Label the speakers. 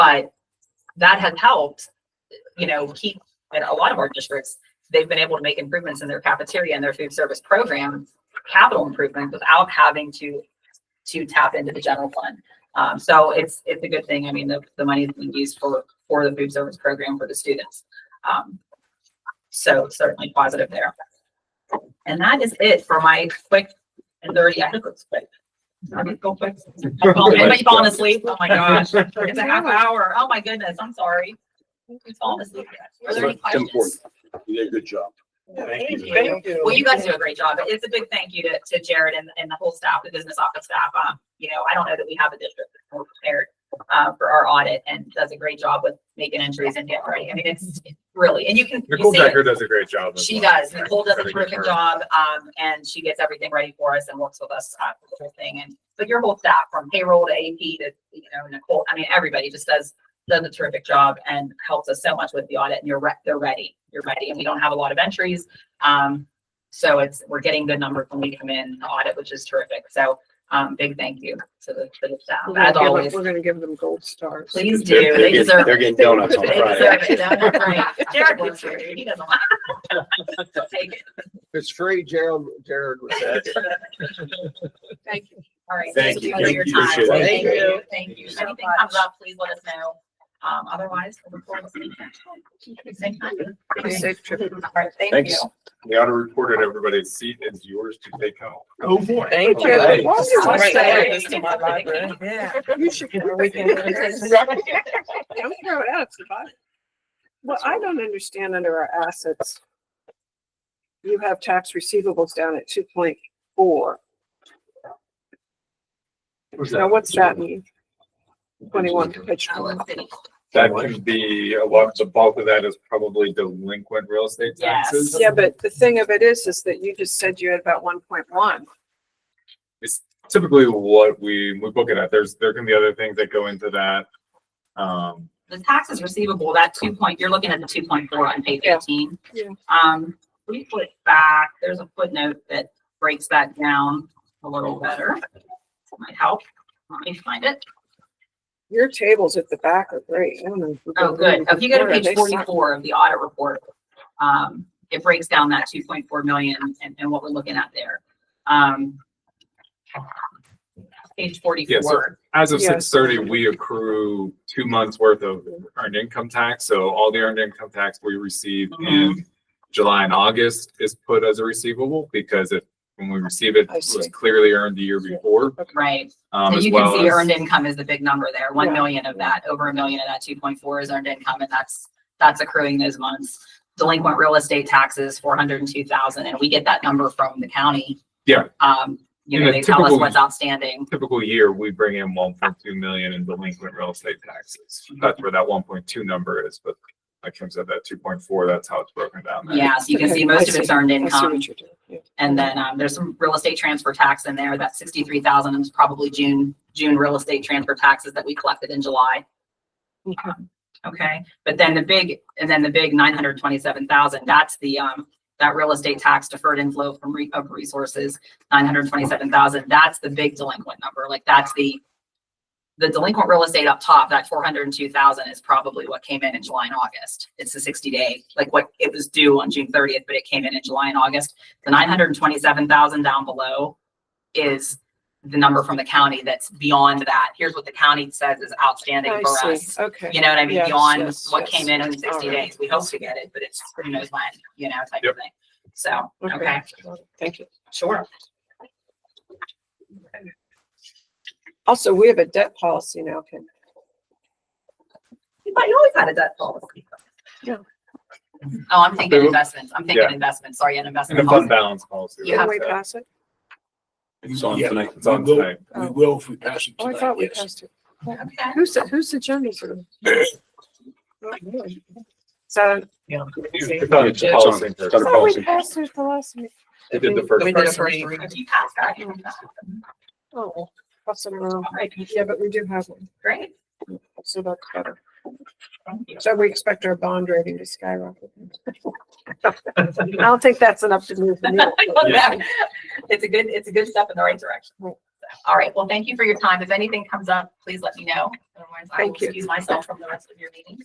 Speaker 1: that has helped, you know, keep, in a lot of our districts, they've been able to make improvements in their cafeteria and their food service program, capital improvements without having to, to tap into the general fund. Um, so it's, it's a good thing. I mean, the, the money is being used for, for the food service program for the students. Um, so certainly positive there. And that is it for my quick and dirty, I think it's quick. I mean, go quick. I'm falling- Everybody falling asleep. Oh my gosh. It's a half hour. Oh my goodness. I'm sorry. It's falling asleep. Are there any
Speaker 2: Tim Ford,
Speaker 1: questions?
Speaker 2: You did a good job.
Speaker 1: Thank you.
Speaker 3: Thank you.
Speaker 1: Well, you guys do a great job. It's a big thank you to, to Jared and, and the whole staff, the business office staff. Um, you know, I don't know that we have a district that's more prepared uh, for our audit and does a great job with making entries and getting ready. I mean, it's it's really, and you can. you
Speaker 4: Nicole
Speaker 1: see it.
Speaker 4: Decker does a great job. as
Speaker 1: She
Speaker 4: well.
Speaker 1: does. Nicole does a
Speaker 4: Really good
Speaker 1: terrific
Speaker 4: work.
Speaker 1: job, um, and she gets everything ready for us and works with us on the whole thing. And, but your whole staff from payroll to AP to, you know, Nicole, I mean, everybody just does, does a terrific job and helps us so much with the audit and you're re- they're ready. You're ready. And we don't have a lot of entries. Um, so it's, we're getting good numbers when we come in the audit, which is terrific. So, um, big thank you to the, to the staff
Speaker 3: We're gonna
Speaker 1: as
Speaker 3: give them-
Speaker 1: always.
Speaker 3: We're gonna give them gold stars.
Speaker 1: Please do. They
Speaker 2: getting-
Speaker 1: deserve
Speaker 2: They're getting donuts on
Speaker 1: They
Speaker 2: Friday.
Speaker 1: deserve it. That's right. Jared works here. He doesn't want. He'll take it.
Speaker 5: It's free, Gerald, Jared was that.
Speaker 3: Thank you.
Speaker 1: All right.
Speaker 2: Thank you.
Speaker 1: for your
Speaker 2: Thank you.
Speaker 1: time.
Speaker 2: Appreciate it.
Speaker 1: Thank
Speaker 3: Thank
Speaker 1: you.
Speaker 3: you.
Speaker 1: Thank you. If
Speaker 3: so
Speaker 1: anything
Speaker 3: much.
Speaker 1: comes up, please let us know. Um, otherwise, we'll report this evening. Same time.
Speaker 3: Be safe trip.
Speaker 1: All right, thank you.
Speaker 2: Thanks.
Speaker 4: The auto report at everybody's seat is yours to take home.
Speaker 5: Oh, boy.
Speaker 3: Thank
Speaker 2: you. Hey.
Speaker 3: Why would you
Speaker 1: Sorry.
Speaker 3: say this to my library? You should get a weekend. Don't throw it out, it's a body. Well, I don't understand under our assets. You have tax receivables down at two point four. Now, what's that mean? Twenty-one, page
Speaker 1: Allen
Speaker 3: twenty.
Speaker 1: City.
Speaker 4: That could be, a lot, the bulk of that is probably delinquent real estate
Speaker 1: Yes.
Speaker 4: taxes.
Speaker 3: Yeah, but the thing of it is, is that you just said you had about one point one.
Speaker 4: It's typically what we, we book it at. There's, there can be other things that go into that. Um,
Speaker 1: The taxes receivable, that two point, you're looking at the two point four on page
Speaker 3: Yeah.
Speaker 1: eighteen.
Speaker 3: Yeah.
Speaker 1: Um, we put back, there's a footnote that breaks that down a little better. Might help. Let me find it.
Speaker 3: Your tables at the back are great. I don't know.
Speaker 1: Oh, good. If you go to
Speaker 3: They
Speaker 1: page
Speaker 3: suck.
Speaker 1: forty-four of the audit report, um, it breaks down that two point four million and, and what we're looking at there. Um. Page forty-four.
Speaker 4: as of six
Speaker 3: Yes.
Speaker 4: thirty, we accrue two months worth of earned income tax. So all the earned income tax we receive in July and August is put as a receivable because if, when we receive it, it
Speaker 3: I see.
Speaker 4: was clearly earned the year before.
Speaker 1: Right.
Speaker 4: Um,
Speaker 1: So
Speaker 4: as
Speaker 1: you can
Speaker 4: well
Speaker 1: see
Speaker 4: as-
Speaker 1: earned income is the big number there. One
Speaker 3: Yeah.
Speaker 1: million of that, over a million of that two point four is earned income and that's, that's accruing those months. Delinquent real estate taxes, four hundred and two thousand, and we get that number from the county.
Speaker 4: Yeah.
Speaker 1: Um, you
Speaker 4: In
Speaker 1: know,
Speaker 4: a
Speaker 1: they tell us
Speaker 4: typical-
Speaker 1: what's outstanding.
Speaker 4: typical year, we bring in one point two million in delinquent real estate taxes. That's where that one point two number is, but like Kim said, that two point four, that's how it's broken down. there.
Speaker 1: Yeah, so you can see
Speaker 3: Okay,
Speaker 1: most
Speaker 3: I
Speaker 1: of it's
Speaker 3: see.
Speaker 1: earned
Speaker 3: I see
Speaker 1: income.
Speaker 3: what you're doing. Yeah.
Speaker 1: And then um, there's some real estate transfer tax in there. That sixty-three thousand is probably June, June real estate transfer taxes that we collected in July.
Speaker 3: Okay.
Speaker 1: Okay, but then the big, and then the big nine hundred twenty-seven thousand, that's the um, that real estate tax deferred inflow from re- of resources, nine hundred twenty-seven thousand, that's the big delinquent number. Like that's the the delinquent real estate up top, that four hundred and two thousand is probably what came in in July and August. It's the sixty-day, like what it was due on June thirtieth, but it came in in July and August the nine hundred and twenty-seven thousand down below is the number from the county that's beyond that. Here's what the county says is outstanding
Speaker 3: I
Speaker 1: for us.
Speaker 3: see. Okay.
Speaker 1: You know what I mean?
Speaker 3: Yes,
Speaker 1: Beyond
Speaker 3: yes,
Speaker 1: what
Speaker 3: yes.
Speaker 1: came in in sixty
Speaker 3: Alright.
Speaker 1: days. We hope to get it, but it's who knows when, you know, type of
Speaker 4: Yep.
Speaker 1: thing. So,
Speaker 3: Okay.
Speaker 1: okay,
Speaker 3: Thank you.
Speaker 1: sure.
Speaker 3: Also, we have a debt policy now, Ken.
Speaker 1: But you always had a debt policy.
Speaker 3: Yeah.
Speaker 1: Oh, I'm thinking
Speaker 4: Who?
Speaker 1: investments. I'm thinking
Speaker 4: Yeah.
Speaker 1: investment. Sorry, an
Speaker 4: And a
Speaker 1: investment.
Speaker 4: fund
Speaker 1: policy.
Speaker 4: balance policy.
Speaker 1: You
Speaker 3: Can
Speaker 1: have
Speaker 3: we pass it?
Speaker 2: It's on
Speaker 6: Yeah,
Speaker 2: tonight.
Speaker 4: It's on
Speaker 6: We will-
Speaker 4: tonight.
Speaker 3: Oh.
Speaker 6: We will if we pass it
Speaker 3: Oh, I
Speaker 6: tonight,
Speaker 3: thought we
Speaker 6: yes.
Speaker 3: passed it.
Speaker 1: Okay.
Speaker 3: Who's, who's agenda for them? So.
Speaker 4: It's on
Speaker 2: It's on-
Speaker 4: policy.
Speaker 2: it's on a
Speaker 3: Oh, we
Speaker 2: policy.
Speaker 3: passed it the last meeting.
Speaker 4: They did the first.
Speaker 5: We did a first
Speaker 1: If
Speaker 5: read.
Speaker 1: you pass that, you're done.
Speaker 3: Oh, pass it around.
Speaker 1: Alright.
Speaker 3: Yeah, but we do have one,
Speaker 1: great.
Speaker 3: so that's better.
Speaker 1: Thank you.
Speaker 3: So we expect our bond rating to skyrocket. I don't think that's enough to move the needle.
Speaker 1: I love that. It's a good, it's a good step in the right direction.
Speaker 3: Right.
Speaker 1: All right, well, thank you for your time. If anything comes up, please let me know. Otherwise, I will
Speaker 3: Thank you.
Speaker 1: excuse myself from the rest of your meeting.